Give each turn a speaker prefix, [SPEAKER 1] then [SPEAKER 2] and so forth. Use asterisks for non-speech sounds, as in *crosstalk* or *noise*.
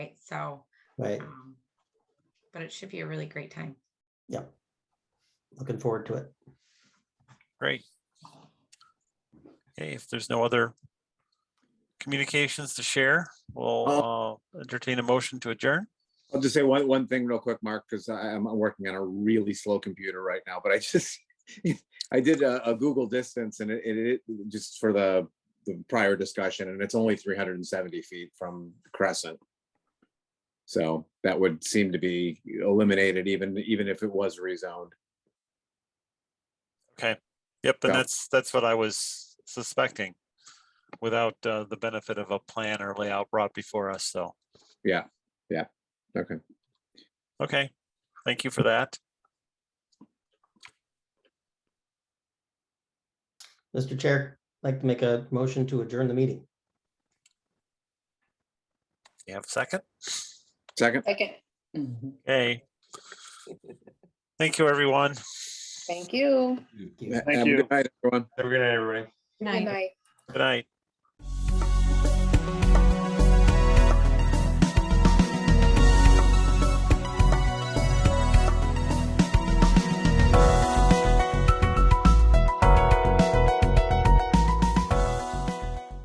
[SPEAKER 1] right? So,
[SPEAKER 2] right?
[SPEAKER 1] um, but it should be a really great time.
[SPEAKER 2] Yep. Looking forward to it.
[SPEAKER 3] Great. Okay, if there's no other communications to share, we'll uh, entertain a motion to adjourn.
[SPEAKER 4] I'll just say one, one thing real quick, Mark, because I'm working on a really slow computer right now, but I *laughs* just, I did a, a Google distance and it, it, it- just for the, the prior discussion, and it's only three hundred and seventy feet from Crescent. So that would seem to be eliminated even, even if it was rezoned.
[SPEAKER 3] Okay, yep, and
[SPEAKER 4] Yeah.
[SPEAKER 3] that's, that's what I was suspecting without uh, the benefit of a plan or layout brought before us, so,
[SPEAKER 4] Yeah, yeah, okay.
[SPEAKER 3] okay, thank you for that.
[SPEAKER 2] Mr. Chair, I'd like to make a motion to adjourn the meeting.
[SPEAKER 3] You have a second?
[SPEAKER 4] Second,
[SPEAKER 5] Second. Mhm.
[SPEAKER 3] Okay. Thank you, everyone.
[SPEAKER 5] Thank you.
[SPEAKER 4] have a good night, everyone.
[SPEAKER 6] Have a good night, everybody.
[SPEAKER 5] Good night.
[SPEAKER 3] Good night.